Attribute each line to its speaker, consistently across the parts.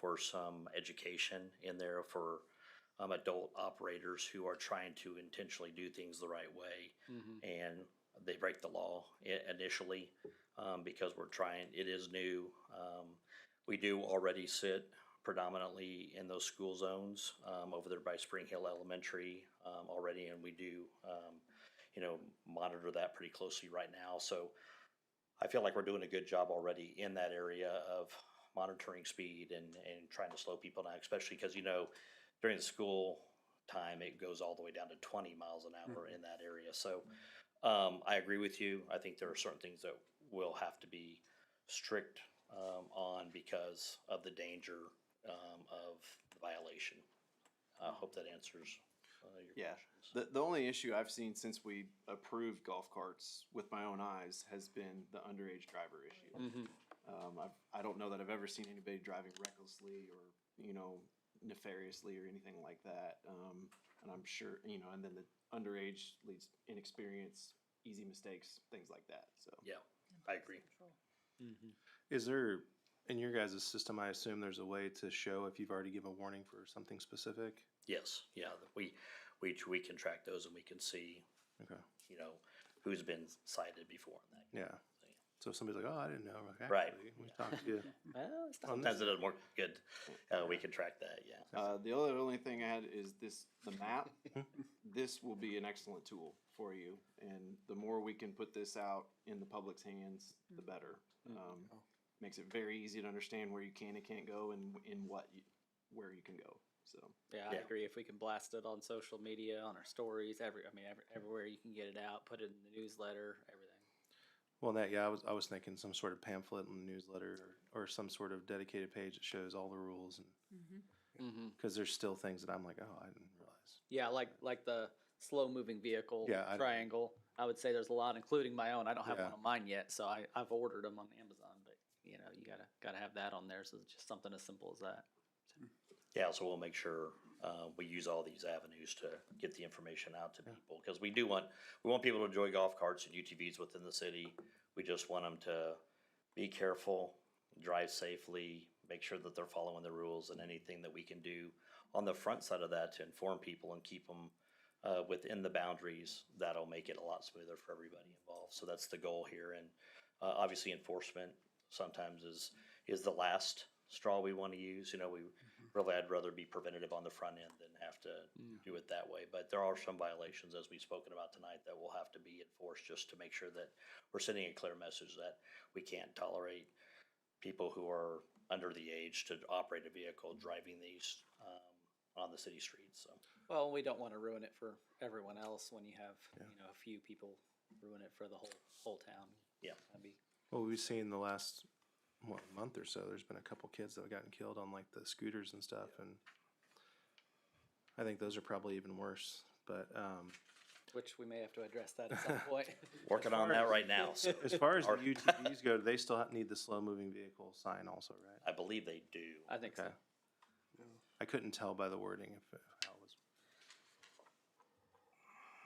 Speaker 1: for some education in there for um, adult operators who are trying to intentionally do things the right way.
Speaker 2: Mm-hmm.
Speaker 1: And they break the law i- initially um, because we're trying, it is new. Um, we do already sit predominantly in those school zones um, over there by Spring Hill Elementary um, already, and we do, um, you know, monitor that pretty closely right now. So I feel like we're doing a good job already in that area of monitoring speed and, and trying to slow people down, especially because, you know, during the school time, it goes all the way down to twenty miles an hour in that area. So um, I agree with you. I think there are certain things that will have to be strict um, on because of the danger um, of the violation. I hope that answers uh, your
Speaker 3: Yeah.
Speaker 1: questions.
Speaker 3: The, the only issue I've seen since we approved golf carts with my own eyes has been the underage driver issue. Um, I've, I don't know that I've ever seen anybody driving recklessly or, you know, nefariously or anything like that. Um, and I'm sure, you know, and then the underage leads inexperience, easy mistakes, things like that. So
Speaker 1: Yeah, I agree.
Speaker 4: Is there, in your guys' system, I assume there's a way to show if you've already given a warning for something specific?
Speaker 1: Yes, yeah, we, we, we can track those and we can see,
Speaker 4: Okay,
Speaker 1: you know, who's been cited before and that.
Speaker 4: yeah. So if somebody's like, oh, I didn't know. like,
Speaker 1: Right.
Speaker 4: actually, We talked to you.
Speaker 1: Well,
Speaker 4: On
Speaker 1: sometimes it doesn't work good. Uh, we can track that, yeah.
Speaker 3: uh, the other only thing I had is this the map. this will be an excellent tool for you. And the more we can put this out in the public's hands, the better. Um, Makes it very easy to understand where you can and can't go and in what, you, where you can go. So,
Speaker 2: Yeah, I
Speaker 1: Yeah.
Speaker 2: agree. If we can blast it on social media, on our stories, every I mean, every, everywhere you can get it out, put it in the newsletter, everything.
Speaker 4: Well, that, yeah, I was, I was thinking some sort of pamphlet and newsletter or, or some sort of dedicated page that shows all the rules. and
Speaker 2: Mm-hmm.
Speaker 4: Because there's still things that I'm like, oh, I didn't realize.
Speaker 2: Yeah, like like the slow moving vehicle
Speaker 4: Yeah, I-
Speaker 2: triangle. I would say there's a lot, including my own. I don't have
Speaker 4: Yeah.
Speaker 2: one on mine yet, so I, I've ordered them on Amazon. But you know, you gotta gotta have that on there. So it's just something as simple as that.
Speaker 1: Yeah, so we'll make sure, uh, we use all these avenues to get the information out to people, because we do want, we want people to enjoy golf carts and UTVs within the city. We just want them to be careful, drive safely, make sure that they're following the rules and anything that we can do on the front side of that to inform people and keep them, uh, within the boundaries, that'll make it a lot smoother for everybody involved. So that's the goal here, and, uh, obviously enforcement sometimes is, is the last straw we want to use. You know, we really, I'd rather be preventative on the front end than have to do it that way. But there are some violations, as we've spoken about tonight, that will have to be enforced just to make sure that we're sending a clear message that we can't tolerate people who are under the age to operate a vehicle driving these um, on the city streets. So,
Speaker 2: Well, we don't want to ruin it for everyone else when you have you know a few people ruin it for the whole whole town.
Speaker 1: yeah,
Speaker 2: That'd be
Speaker 4: Well, we've seen the last what, month or so, there's been a couple kids that have gotten killed on like the scooters and stuff, and I think those are probably even worse. But um,
Speaker 2: which we may have to address that at some point.
Speaker 1: working on that right now. So
Speaker 4: as far as the
Speaker 1: Are-
Speaker 4: UTVs go, they still ha- need the slow moving vehicle sign, also, right?
Speaker 1: I believe they do.
Speaker 2: I think so.
Speaker 4: Okay. I couldn't tell by the wording if how it was.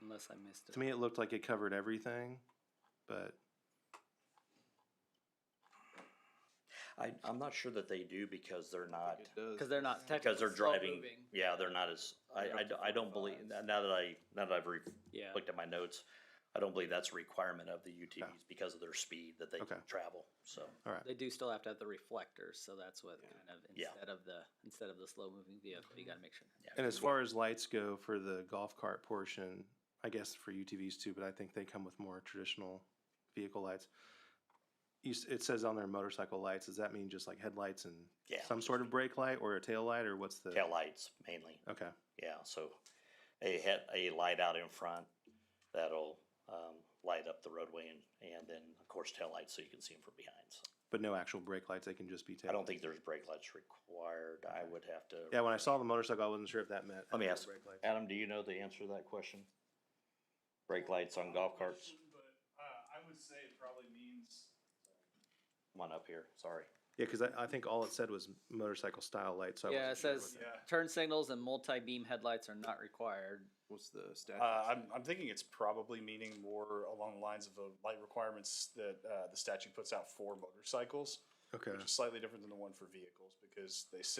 Speaker 2: Unless I missed it.
Speaker 4: To me, it looked like it covered everything, but
Speaker 1: I, I'm not sure that they do because they're not.
Speaker 3: it does.
Speaker 2: Because they're not technically
Speaker 1: Because they're
Speaker 2: slow
Speaker 1: driving,
Speaker 2: moving.
Speaker 1: yeah, they're not as, I, I d- I don't believe, now that I, now that I've re-
Speaker 2: Yeah.
Speaker 1: looked at my notes, I don't believe that's a requirement of the UTVs because of their speed that they can
Speaker 4: Okay.
Speaker 1: travel, so.
Speaker 4: all right.
Speaker 2: They do still have to have the reflectors, so that's what kind of
Speaker 1: Yeah.
Speaker 2: instead of the instead of the slow moving vehicle, you got to make sure.
Speaker 4: And as far as lights go for the golf cart portion, I guess for UTVs too, but I think they come with more traditional vehicle lights. You, s- it says on their motorcycle lights, does that mean just like headlights and
Speaker 1: Yeah.
Speaker 4: some sort of brake light or a tail light or what's the?
Speaker 1: Taillights mainly,
Speaker 4: Okay,
Speaker 1: yeah, so a head, a light out in front that'll, um, light up the roadway and, and then, of course, taillights so you can see them from behind. So
Speaker 4: but no actual brake lights, they can just be tail.
Speaker 1: I don't think there's brake lights required, I would have to.
Speaker 4: Yeah, when I saw the motorcycle, I wasn't sure if that meant.
Speaker 1: Let me
Speaker 4: actual
Speaker 1: ask,
Speaker 4: brake lights.
Speaker 1: Adam, do you know the answer to that question? Brake lights on golf carts?
Speaker 5: But uh, I would say it probably means
Speaker 1: Come on up here, sorry.
Speaker 4: Yeah, cause I, I think all it said was motorcycle style lights. so I
Speaker 2: Yeah, it
Speaker 4: wasn't sure what
Speaker 2: says
Speaker 5: Yeah.
Speaker 2: turn signals and multi beam headlights are not required.
Speaker 3: What's the statute?
Speaker 5: Uh, I'm, I'm thinking it's probably meaning more along the lines of the light requirements that uh, the statute puts out for motorcycles,
Speaker 4: that- Okay.
Speaker 5: which is slightly different than the one for vehicles because they sit